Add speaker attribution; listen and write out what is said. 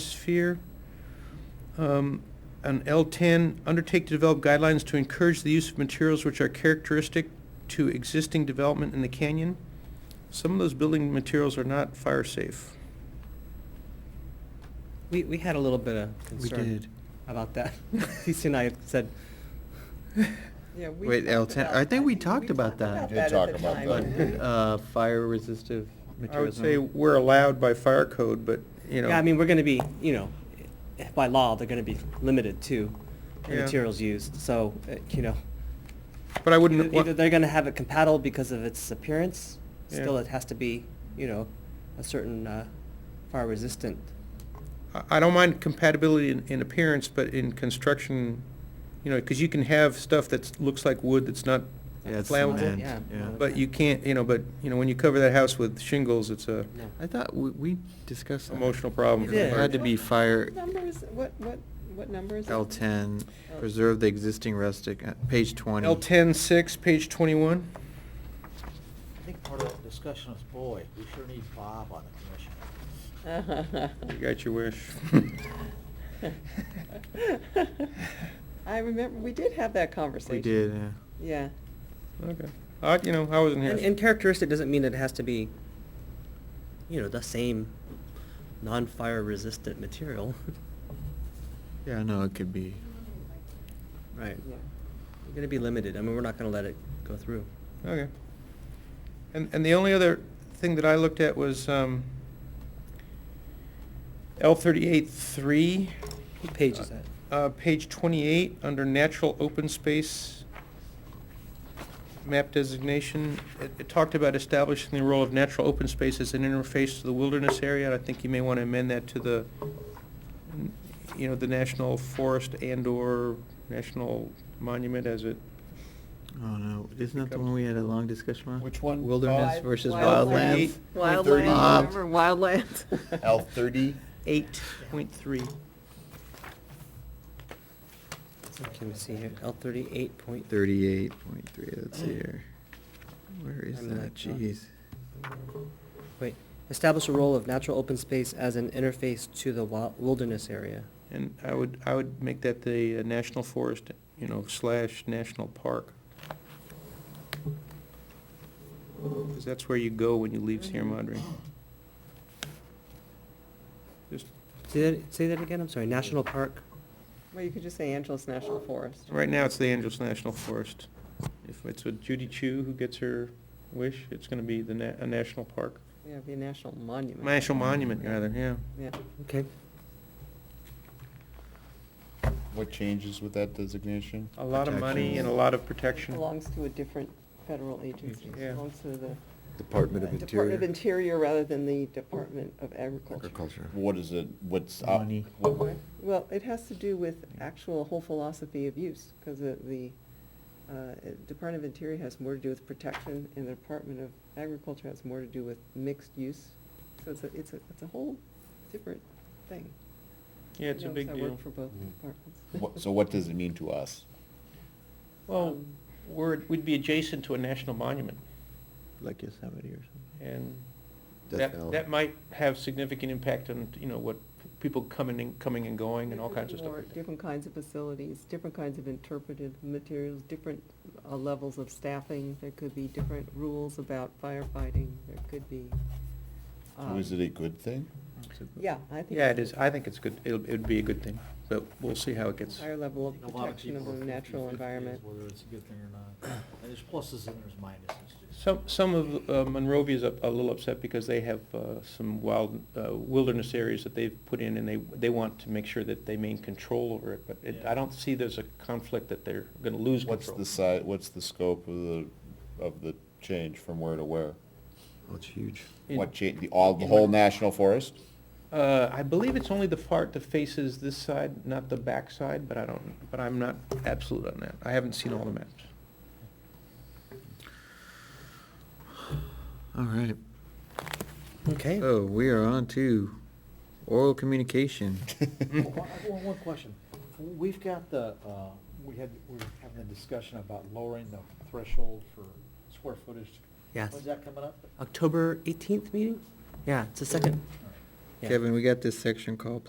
Speaker 1: atmosphere. Um, On L10, undertake to develop guidelines to encourage the use of materials which are characteristic to existing development in the canyon. Some of those building materials are not fire safe.
Speaker 2: We, we had a little bit of concern.
Speaker 3: did.
Speaker 2: About that. Lisa and I had said,
Speaker 4: Yeah, we
Speaker 3: Wait,
Speaker 4: talked
Speaker 3: L10
Speaker 4: about
Speaker 3: I think
Speaker 4: that.
Speaker 3: we talked about that.
Speaker 5: We did
Speaker 4: at the
Speaker 5: talk about
Speaker 4: time,
Speaker 3: but,
Speaker 5: that.
Speaker 4: didn't we?
Speaker 3: uh, fire resistive
Speaker 1: I
Speaker 3: materials.
Speaker 1: would say we're allowed by fire code, but, you know.
Speaker 2: yeah, I mean, we're gonna be, you know, by law, they're gonna be limited to the
Speaker 1: Yeah.
Speaker 2: materials used, so, uh, you know.
Speaker 1: But I wouldn't.
Speaker 2: Either
Speaker 1: wa-
Speaker 2: either they're gonna have it compatible because of its appearance, still
Speaker 1: Yeah.
Speaker 2: it has to be, you know, a certain, uh, fire resistant.
Speaker 1: I- I don't mind compatibility in, in appearance, but in construction, you know, because you can have stuff that looks like wood that's not
Speaker 3: Yeah, it's
Speaker 1: Flammable?
Speaker 3: cement,
Speaker 2: Yeah.
Speaker 3: yeah.
Speaker 1: But you can't, you know, but, you know, when you cover that house with shingles, it's a
Speaker 2: No.
Speaker 3: I thought we, we discussed that.
Speaker 1: emotional problem.
Speaker 2: You
Speaker 1: for the
Speaker 2: did.
Speaker 3: It had to be fire
Speaker 4: What number is, what, what, what number is it?
Speaker 3: L ten, preserve the existing rustic, uh, page twenty.
Speaker 1: L ten six, page twenty-one.
Speaker 5: I think part of the discussion is, boy, we sure need Bob on the commission.
Speaker 1: You got your wish.
Speaker 4: I remember, we did have that conversation.
Speaker 3: We did, yeah.
Speaker 4: Yeah.
Speaker 1: Okay. I, you know, I wasn't
Speaker 2: And, and
Speaker 1: here.
Speaker 2: characteristic doesn't mean it has to be, you know, the same non-fire resistant material.
Speaker 3: Yeah, no, it could be.
Speaker 2: Right.
Speaker 4: yeah.
Speaker 2: We're gonna be limited, I mean, we're not gonna let it go through.
Speaker 1: Okay. And, and the only other thing that I looked at was, um, L thirty-eight three.
Speaker 2: What page is that?
Speaker 1: Uh, page twenty-eight, under natural open space map designation, it, it talked about establishing the role of natural open space as an interface to the wilderness area, and I think you may want to amend that to the, n- you know, the national forest and/or national monument as it,
Speaker 3: Oh, no, isn't that the one we had a long discussion on?
Speaker 5: Which one?
Speaker 3: Wilderness
Speaker 5: Wild-
Speaker 3: versus
Speaker 4: wild-
Speaker 3: wildlands.
Speaker 5: Point thirty.
Speaker 1: Uh,
Speaker 4: Wildland, remember wildland?
Speaker 5: L thirty?
Speaker 1: eight point three.
Speaker 2: Can we see here, L thirty-eight point three.
Speaker 3: Thirty-eight point three, let's see here. Where is
Speaker 2: I'm
Speaker 3: that,
Speaker 2: like, not-
Speaker 3: jeez?
Speaker 2: Wait, establish a role of natural open space as an interface to the wa- wilderness area.
Speaker 1: And I would, I would make that the uh, national forest, you know, slash national park. Because that's where you go when you leave Sierra Madre. Just,
Speaker 2: Say that, say that again, I'm sorry, national park,
Speaker 4: Well, you could just say Angeles National Forest.
Speaker 1: right now, it's the Angeles National Forest. If it's with Judy Chu who gets her wish, it's gonna be the na- a national park.
Speaker 4: Yeah, it'd be a national monument.
Speaker 1: National monument, rather, yeah.
Speaker 4: Yeah.
Speaker 2: okay.
Speaker 5: What changes with that designation?
Speaker 1: A lot of money and a lot of protection.
Speaker 4: Belongs to a different federal agency.
Speaker 1: Yeah.
Speaker 4: Belongs to the
Speaker 6: Department of
Speaker 4: Department of
Speaker 6: Interior.
Speaker 4: Interior rather than the Department of Agriculture.
Speaker 6: Agriculture.
Speaker 5: What is it, what's up?
Speaker 3: Money.
Speaker 5: what-
Speaker 4: Well, it has to do with actual whole philosophy of use, because the, the uh, Department of Interior has more to do with protection, and the Department of Agriculture has more to do with mixed use. So it's a, it's a, it's a whole different thing.
Speaker 1: Yeah, it's a
Speaker 4: You know,
Speaker 1: big
Speaker 4: 'cause I
Speaker 1: deal.
Speaker 4: work for both
Speaker 6: Mm.
Speaker 4: departments.
Speaker 5: what- So what does it mean to us?
Speaker 1: Well, we're, we'd be adjacent to a national monument.
Speaker 3: Like Yosemite or something.
Speaker 1: And
Speaker 6: Death
Speaker 1: that,
Speaker 6: Valley.
Speaker 1: that might have significant impact on, you know, what people coming and, coming and going and all kinds of stuff.
Speaker 4: More
Speaker 1: like that.
Speaker 4: Different kinds of facilities, different kinds of interpretive materials, different uh, levels of staffing. There could be different rules about firefighting. There could be.
Speaker 5: So
Speaker 4: um,
Speaker 5: Is it a good thing?
Speaker 3: It's a-
Speaker 4: Yeah, I think.
Speaker 1: Yeah, it is, I think it's good, it'll, it'd be a good thing, but we'll see how it gets.
Speaker 4: Higher level of
Speaker 7: A lot
Speaker 4: protection of
Speaker 7: people
Speaker 4: the
Speaker 7: are
Speaker 4: natural
Speaker 7: 50-50 is
Speaker 4: environment.
Speaker 7: Whether it's a good thing or not. And there's pluses and there's minuses.
Speaker 1: Some, some of uh, Monrovia is a little upset because they have uh, some wild uh, wilderness areas that they've put in and they, they want to make sure that they maintain control over it, but it- I
Speaker 7: Yeah.
Speaker 1: don't see there's a conflict that they're gonna lose
Speaker 5: What's
Speaker 1: control.
Speaker 5: the si, what's the scope of the, of the change from where to where?
Speaker 3: Oh, it's huge.
Speaker 1: In-
Speaker 5: What change, the, all, the
Speaker 1: in
Speaker 5: whole
Speaker 1: what-
Speaker 5: national forest?
Speaker 1: Uh, I believe it's only the part that faces this side, not the back side, but I don't, but I'm not absolute on that. I haven't seen all the maps.
Speaker 3: All right,
Speaker 2: Okay.
Speaker 3: so we are on to oral communication.
Speaker 7: Well, I- One, one question. We've got the, uh, we had, we we're having a discussion about lowering the threshold for square footage.
Speaker 2: Yes.
Speaker 7: When's that coming up?
Speaker 2: October eighteenth meeting? Yeah, it's the second,
Speaker 7: All right.
Speaker 2: Yeah.
Speaker 3: Kevin, we got this section called